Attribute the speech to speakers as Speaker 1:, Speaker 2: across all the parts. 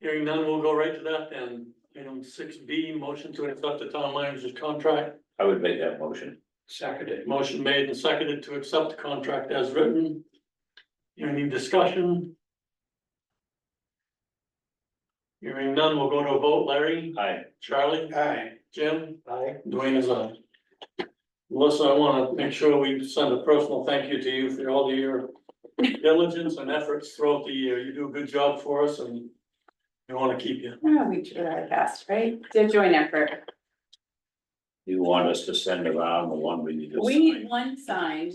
Speaker 1: Hearing none, we'll go right to that then. Item six B, motion to accept the town manager's contract.
Speaker 2: I would make that motion.
Speaker 1: Seconded. Motion made and seconded to accept the contract as written. Any discussion? Hearing none, we'll go to a vote. Larry?
Speaker 2: Aye.
Speaker 1: Charlie?
Speaker 3: Aye.
Speaker 1: Jim?
Speaker 3: Aye.
Speaker 1: Dwayne is on. Melissa, I wanna make sure we send a personal thank you to you for all of your diligence and efforts throughout the year. You do a good job for us and we wanna keep you.
Speaker 4: Yeah, we try our best, right? To join effort.
Speaker 2: You want us to send around the one we need to
Speaker 4: We need
Speaker 2: sign?
Speaker 4: one signed.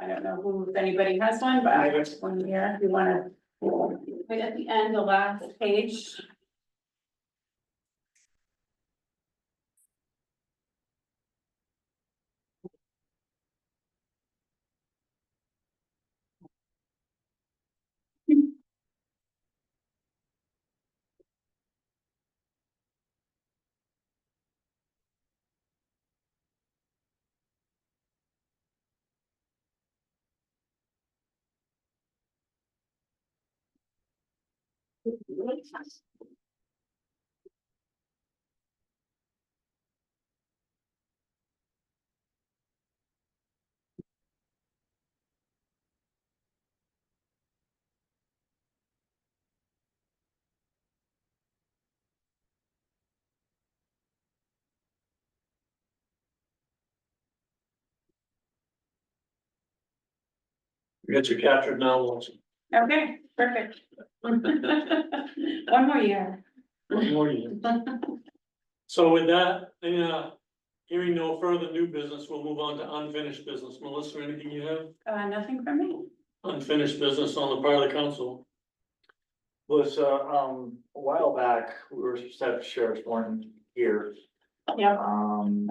Speaker 4: I don't know who, if anybody has one, but I have one here. You wanna? Wait, at the end, the last page.
Speaker 1: We got you captured now, Melissa.
Speaker 4: Okay, perfect. One more year.
Speaker 1: One more year. So with that, yeah, hearing no further new business, we'll move on to unfinished business. Melissa, anything you have?
Speaker 4: Uh, nothing from me.
Speaker 1: Unfinished business on the part of the council.
Speaker 3: Was, uh, um, a while back, we were set up sheriff's warrant here,
Speaker 4: Yeah,
Speaker 3: um.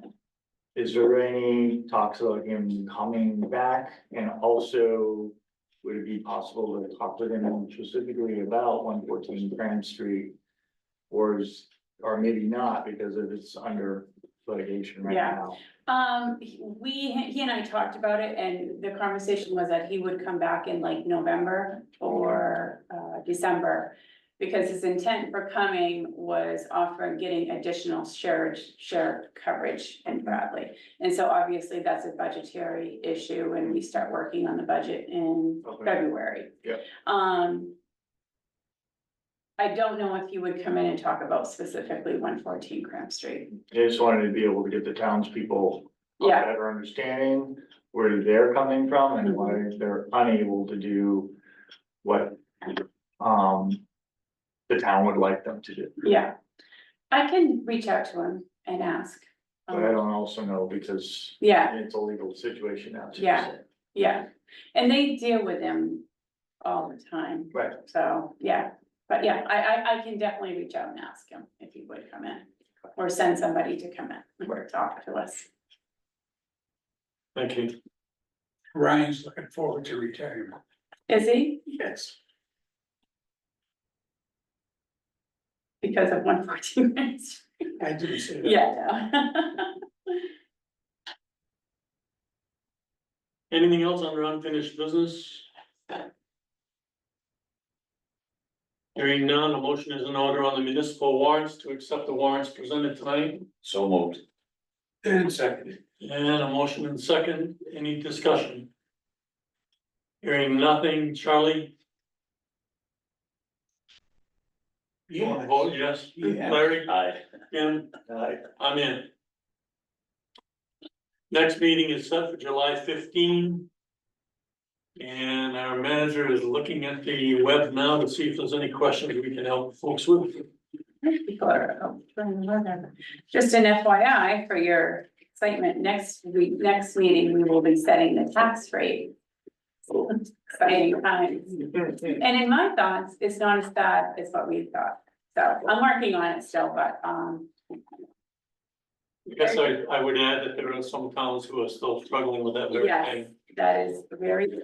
Speaker 3: Is there any talks about him coming back and also? Would it be possible to talk with him specifically about one fourteen Grand Street? Or is, or maybe not because of it's under litigation right
Speaker 4: Yeah.
Speaker 3: now?
Speaker 4: Um, he- we, he and I talked about it and the conversation was that he would come back in like November or uh December. Because his intent for coming was offering, getting additional shared, shared coverage in Bradley. And so obviously that's a budgetary issue when we start working on the budget in
Speaker 3: Okay.
Speaker 4: February.
Speaker 3: Yep.
Speaker 4: Um. I don't know if he would come in and talk about specifically one fourteen Cramp Street.
Speaker 3: They just wanted to be able to get the townspeople a
Speaker 4: Yeah,
Speaker 3: better understanding where they're coming from and why
Speaker 4: Mm-hmm.
Speaker 3: they're unable to do what um the town would like them to do.
Speaker 4: Yeah, I can reach out to him and ask. Um,
Speaker 3: But I don't also know because
Speaker 4: Yeah,
Speaker 3: it's a legal situation now. too, so-
Speaker 4: Yeah. yeah, and they deal with him all the time,
Speaker 3: Right,
Speaker 4: so, yeah, but yeah, I, I, I can definitely reach out and ask him if he would come in. Or send somebody to come in or talk to us.
Speaker 1: Thank you.
Speaker 5: Ryan's looking forward to retirement.
Speaker 4: Is he?
Speaker 5: Yes.
Speaker 4: Because of one fourteen minutes?
Speaker 5: I didn't say that.
Speaker 4: Yeah. no.
Speaker 1: Anything else under unfinished business? Hearing none, a motion is in order on the municipal warrants to accept the warrants presented tonight.
Speaker 2: So moved.
Speaker 5: And seconded.
Speaker 1: And a motion and second, any discussion? Hearing nothing, Charlie, you want to vote yes?
Speaker 5: Yeah.
Speaker 1: Larry,
Speaker 2: Aye.
Speaker 1: Jim?
Speaker 3: uh,
Speaker 1: I'm in. Next meeting is set for July fifteen. And our manager is looking at the web now to see if there's any questions we can help folks with.
Speaker 4: People are, oh, trying to learn them. Just an FYI for your excitement, next week, next meeting, we will be setting the tax rate. Exciting times. And in my thoughts, it's not as bad as what we thought, so I'm working on it still, but, um,
Speaker 1: I guess I, I would add that there are some towns who are still struggling with that very
Speaker 4: yes,
Speaker 1: thing.
Speaker 4: that is very true.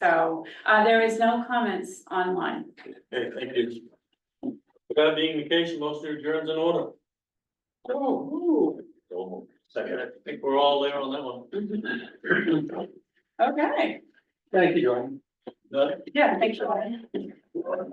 Speaker 4: So, uh, there is no comments online.
Speaker 1: Okay, thank you. With that being the case, motion adjourns in order. Oh,
Speaker 2: So moved.
Speaker 1: I
Speaker 2: Second.
Speaker 1: think we're all there on that one.
Speaker 4: Okay,
Speaker 1: Thank you, Jordan.
Speaker 4: yeah, thank you.